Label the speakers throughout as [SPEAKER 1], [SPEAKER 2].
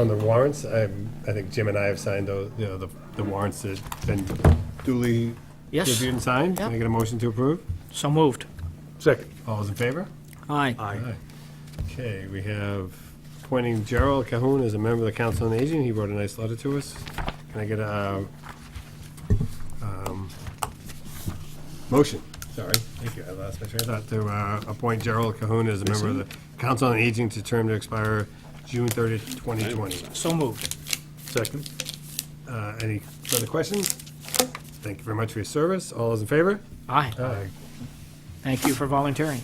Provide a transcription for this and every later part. [SPEAKER 1] On the warrants, I, I think Jim and I have signed those, you know, the, the warrants that have been duly
[SPEAKER 2] Yes.
[SPEAKER 1] reviewed and signed. Can I
[SPEAKER 2] Yep.
[SPEAKER 1] get a motion to approve?
[SPEAKER 2] So moved.
[SPEAKER 3] Second.
[SPEAKER 1] All those in favor?
[SPEAKER 2] Aye.
[SPEAKER 1] Aye. Okay, we have appointing Gerald Cahoon as a member of the Council on Aging. He wrote a nice letter to us. Can I get a, um, motion? Sorry, thank you, I lost my train of thought. To, uh, appoint Gerald Cahoon as a member of the Council on Aging to term to expire June thirtieth, twenty twenty.
[SPEAKER 2] So moved.
[SPEAKER 3] Second.
[SPEAKER 1] Uh, Any further questions? Thank you very much for your service. All those in favor?
[SPEAKER 2] Aye.
[SPEAKER 1] Aye.
[SPEAKER 2] Thank you for volunteering.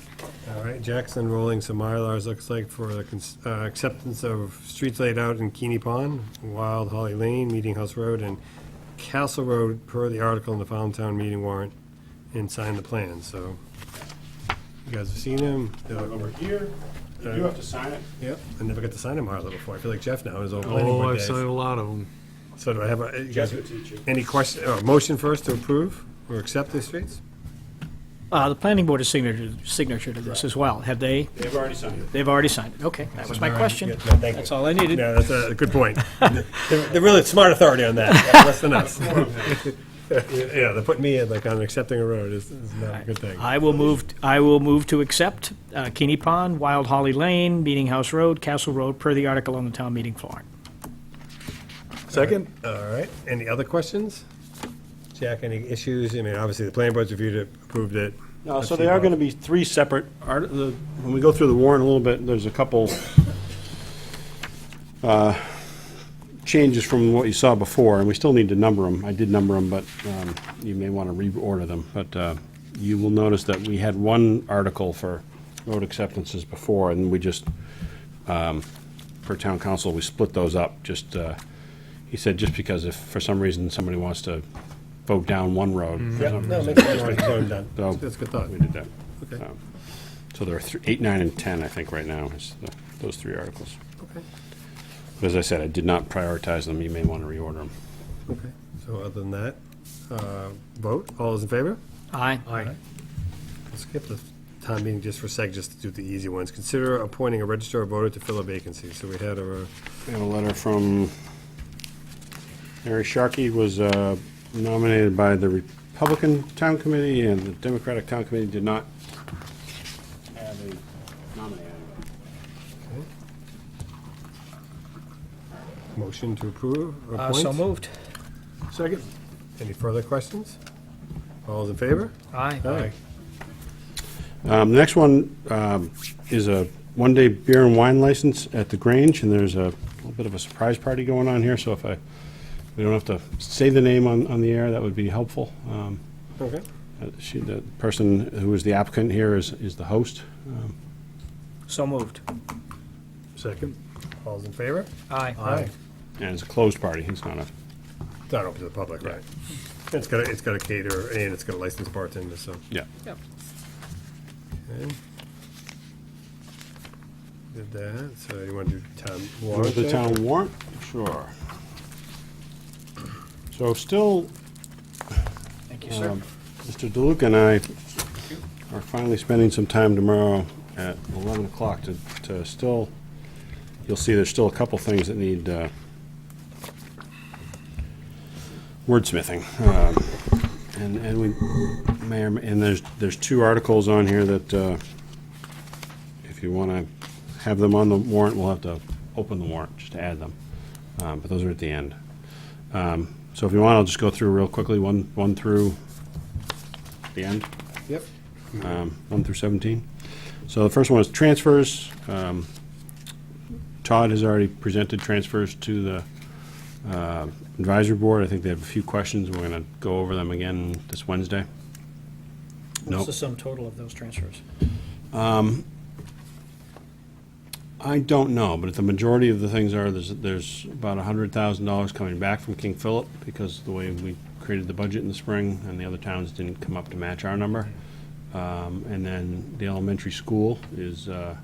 [SPEAKER 1] All right, Jack's unrolling some Mylars, looks like, for the cons- uh, acceptance of streets laid out in Keeney Pond, Wild Holly Lane, Meeting House Road, and Castle Road, per the article in the Fountain Meeting warrant, and sign the plan, so. You guys have seen them? They're over here.
[SPEAKER 4] You do have to sign it.
[SPEAKER 1] Yep, I never got to sign a Mylar before. I feel like Jeff now, in his old planning
[SPEAKER 3] Oh,
[SPEAKER 1] board
[SPEAKER 3] I've
[SPEAKER 1] days.
[SPEAKER 3] signed a lot of them.
[SPEAKER 1] So do I have a, you guys,
[SPEAKER 4] Jeff will teach you.
[SPEAKER 1] any question, uh, motion first to approve or accept the streets?
[SPEAKER 2] Uh, The planning board is signature, signature to this as well. Have they,
[SPEAKER 4] They've already signed it.
[SPEAKER 2] they've already signed it? Okay, that was my
[SPEAKER 1] All right, yeah,
[SPEAKER 2] question.
[SPEAKER 1] no, thank you.
[SPEAKER 2] That's all I needed.
[SPEAKER 1] Yeah, that's a good point. They're they're really smart authority on that, less than us. Yeah, they're putting me in, like, on accepting a road is is not a good thing.
[SPEAKER 2] I will move, I will move to accept uh, Keeney Pond, Wild Holly Lane, Meeting House Road, Castle Road, per the article on the town meeting floor.
[SPEAKER 3] Second?
[SPEAKER 1] All right, any other questions? Jack, any issues? I mean, obviously, the planning board's reviewed it, approved it.
[SPEAKER 4] No, so they are going to be three separate, art- the- when we go through the warrant a little bit, there's a couple uh, changes from what you saw before, and we still need to number them. I did number them, but um, you may want to reorder them. But uh, you will notice that we had one article for road acceptances before, and we just, um, per town council, we split those up, just, uh, he said, just because if, for some reason, somebody wants to vote down one road, for
[SPEAKER 1] Yeah,
[SPEAKER 4] some
[SPEAKER 1] no,
[SPEAKER 4] reason,
[SPEAKER 1] make sure it's done.
[SPEAKER 4] No.
[SPEAKER 1] That's a good thought.
[SPEAKER 4] we did that.
[SPEAKER 1] Okay.
[SPEAKER 4] Um, So there are thr- eight, nine, and 10, I think, right now, is the- those three articles.
[SPEAKER 1] Okay.
[SPEAKER 4] But as I said, I did not prioritize them. You may want to reorder them.
[SPEAKER 1] Okay, so other than that, uh, vote, all those in favor?
[SPEAKER 2] Aye.
[SPEAKER 1] Let's skip the town meeting just for a sec, just to do the easy ones. Consider appointing a registrar of voter to fill a vacancy. So we had uh, our,
[SPEAKER 4] We have a letter from Mary Sharkey was uh, nominated by the Republican Town Committee, and the Democratic Town Committee did not have a nominee.
[SPEAKER 1] Motion to approve,
[SPEAKER 2] Uh, So
[SPEAKER 1] appoint.
[SPEAKER 2] moved.
[SPEAKER 3] Second?
[SPEAKER 1] Any further questions? All those in favor?
[SPEAKER 2] Aye.
[SPEAKER 4] Um, The next one um, is a one-day beer and wine license at the Grange, and there's a little bit of a surprise party going on here, so if I, we don't have to say the name on, on the air, that would be helpful. Um,
[SPEAKER 1] Okay.
[SPEAKER 4] uh, She, the person who is the applicant here is, is the host.
[SPEAKER 2] So moved.
[SPEAKER 3] Second?
[SPEAKER 1] All those in favor?
[SPEAKER 2] Aye.
[SPEAKER 4] And it's a closed party, it's not a,
[SPEAKER 1] It's not open to the public, right? It's got, a- it's got a caterer and it's got a licensed bartender, so.
[SPEAKER 4] yeah.
[SPEAKER 1] okay. Did that, so you want to do town
[SPEAKER 4] Go
[SPEAKER 1] warrant?
[SPEAKER 4] to the
[SPEAKER 1] there?
[SPEAKER 4] town warrant? Sure. So still,
[SPEAKER 2] Thank you, sir.
[SPEAKER 4] um, Mr. DeLuca and I are finally spending some time tomorrow at 11 o'clock to, to still, you'll see there's still a couple things that need uh, wordsmithing. Um, And, and we, may or may and there's, there's two articles on here that, uh, if you want to have them on the warrant, we'll have to open the warrant just to add them. Um, But those are at the end. Um, So if you want, I'll just go through real quickly, one, one through the end,
[SPEAKER 1] Yep.
[SPEAKER 4] um, one through 17. So the first one is transfers. Um, Todd has already presented transfers to the uh, advisory board. I think they have a few questions. We're going to go over them again this Wednesday.
[SPEAKER 2] What's
[SPEAKER 4] Nope.
[SPEAKER 2] the sum total of those transfers?
[SPEAKER 4] I don't know, but the majority of the things are, there's, there's about hundred thousand dollars coming back from King Philip because the way we created the budget in the spring and the other towns didn't come up to match our number. Um, and then the elementary school is, uh,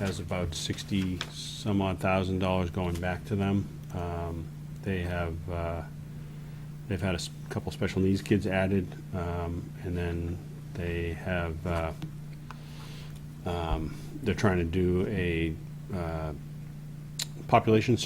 [SPEAKER 4] has about sixty some odd thousand dollars going back to them. Um, they have, uh, they've had a s- couple special needs kids added, um, and then they have, uh, they're trying to do a uh, population